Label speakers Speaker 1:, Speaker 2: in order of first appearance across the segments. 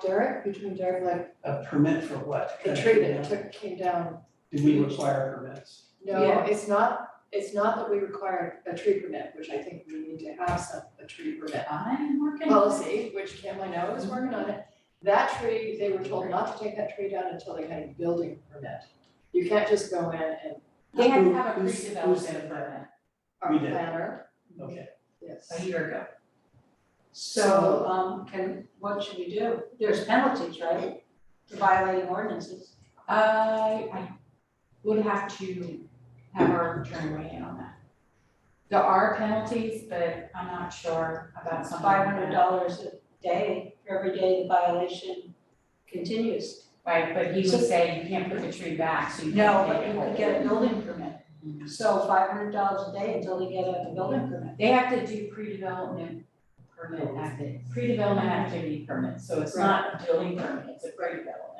Speaker 1: Derek, between Derek, like,
Speaker 2: A permit for what?
Speaker 1: the tree that took, came down.
Speaker 2: Do we require permits?
Speaker 1: No, it's not, it's not that we require a tree permit, which I think we need to have some, a tree permit
Speaker 3: I'm working.
Speaker 1: policy, which Kim, I know, is working on it. That tree, they were told not to take that tree down until they had a building permit. You can't just go in and
Speaker 3: They had to have a
Speaker 2: Who's- who's- who's-
Speaker 3: pre-development permit
Speaker 1: our
Speaker 2: We did.
Speaker 1: planner,
Speaker 2: Okay,
Speaker 3: a
Speaker 1: yes.
Speaker 3: year ago.
Speaker 4: So, um, can, what should we do? There's penalties, right? For violating ordinances.
Speaker 3: I, Uh, I would have to have our attorney weigh in on that. There are penalties, but I'm not sure about something like
Speaker 4: Five hundred
Speaker 3: that.
Speaker 4: dollars a day, for every day the violation continues.
Speaker 3: Right, but he
Speaker 4: So-
Speaker 3: would say you can't put the tree back, so you
Speaker 4: No,
Speaker 3: can't
Speaker 4: but
Speaker 3: take it
Speaker 4: you
Speaker 3: whole.
Speaker 4: could get a building permit. So five hundred dollars a day until they get a building permit.
Speaker 3: They have to do pre-development permit acti- pre-development activity permit, so it's not a building permit, it's a pre-development,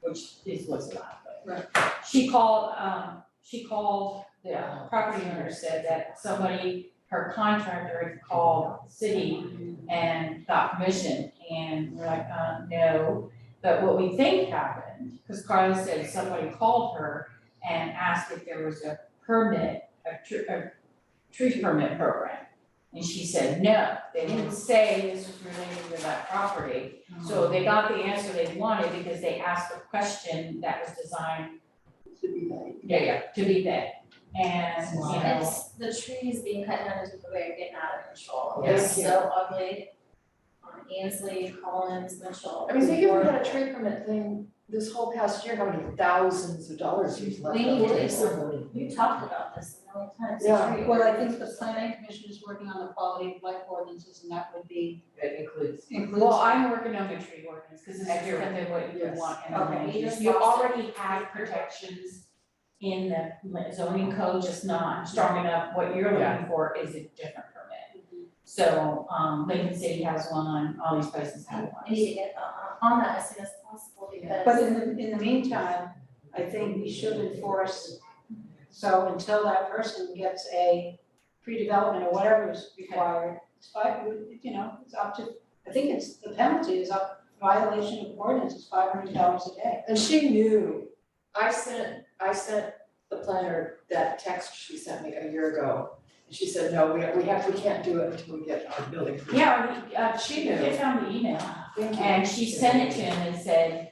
Speaker 3: which is what's allowed, but. She called, um, she called, the property owner said that somebody, her contractor had called the city and got permission, and we're like, uh, no. But what we think happened, because Carla said somebody called her and asked if there was a permit, a tr- a tree permit program. And she said, no, they didn't say this was related to that property. So they got the answer they wanted because they asked a question that was designed,
Speaker 1: To be like,
Speaker 3: yeah, yeah, to be that. And, you
Speaker 5: Wow.
Speaker 3: know,
Speaker 6: It's the trees being cut down is the way of getting out of control, they're
Speaker 1: Yes.
Speaker 6: so ugly. On Ansley, Collins, Mitchell.
Speaker 1: I mean, think if we had a tree permit thing this whole past year, how many thousands of dollars you've left
Speaker 6: We
Speaker 1: on the
Speaker 6: need to
Speaker 1: table.
Speaker 6: do something, we've talked about this a million times, the
Speaker 1: Yeah.
Speaker 6: tree.
Speaker 4: Well, I think the planning commission is working on the quality of life ordinances and that would be
Speaker 5: It includes.
Speaker 4: includes.
Speaker 3: well, I'm working on the tree ordinance because it's different than what you
Speaker 1: Yes.
Speaker 3: want in the
Speaker 6: Okay.
Speaker 3: land
Speaker 6: You
Speaker 3: use.
Speaker 6: just
Speaker 3: You
Speaker 6: lost it.
Speaker 3: already have protections in the zoning code, just not strong enough. What you're looking for is a different permit. So, um, Lincoln City has one, all these places have one.
Speaker 6: I need to get uh, on that as soon as possible because.
Speaker 4: But in the, in the meantime, I think we should enforce, so until that person gets a pre-development or whatever is required, it's five, you know, it's up to, I think it's, the penalty is up, violation of ordinance is five hundred dollars a day.
Speaker 1: And she knew, I sent, I sent the planner that text she sent me a year ago. And she said, no, we, we have, we can't do it until we get our building. permit."
Speaker 3: Yeah, we- uh, she did found the email,
Speaker 1: Thank you.
Speaker 3: and she sent it to him and said,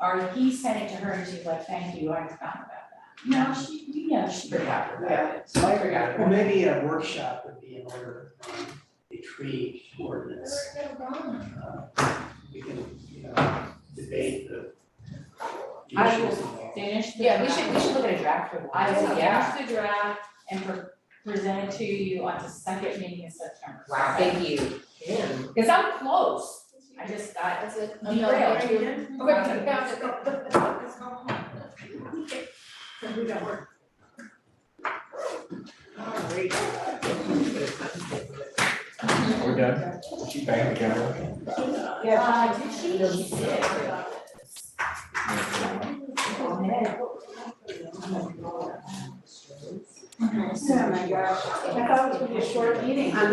Speaker 3: or he sent it to her, and she's like, thank you, I forgot about that. No, she, you know, she forgot about it, so I forgot
Speaker 2: well,
Speaker 3: about it.
Speaker 2: maybe a workshop would be in order on a tree ordinance.
Speaker 6: Never go wrong.
Speaker 2: Uh, We can, you know, debate the the
Speaker 3: I will
Speaker 2: issues involved.
Speaker 3: Finish the.
Speaker 5: Yeah, we should, we should look at a draft for one.
Speaker 3: I will
Speaker 5: Yeah.
Speaker 3: finish the draft and pre- present it to you on the second meeting in September.
Speaker 5: Wow, thank you, Kim.
Speaker 3: Because I'm close, I just got
Speaker 1: That's it. I'm not
Speaker 3: derailed.
Speaker 1: worried.
Speaker 6: Let's go home.
Speaker 1: We don't work.
Speaker 7: We're done. She banged the camera.
Speaker 3: Uh, did she? She did.
Speaker 4: Oh my gosh, I thought it was gonna be a short meeting.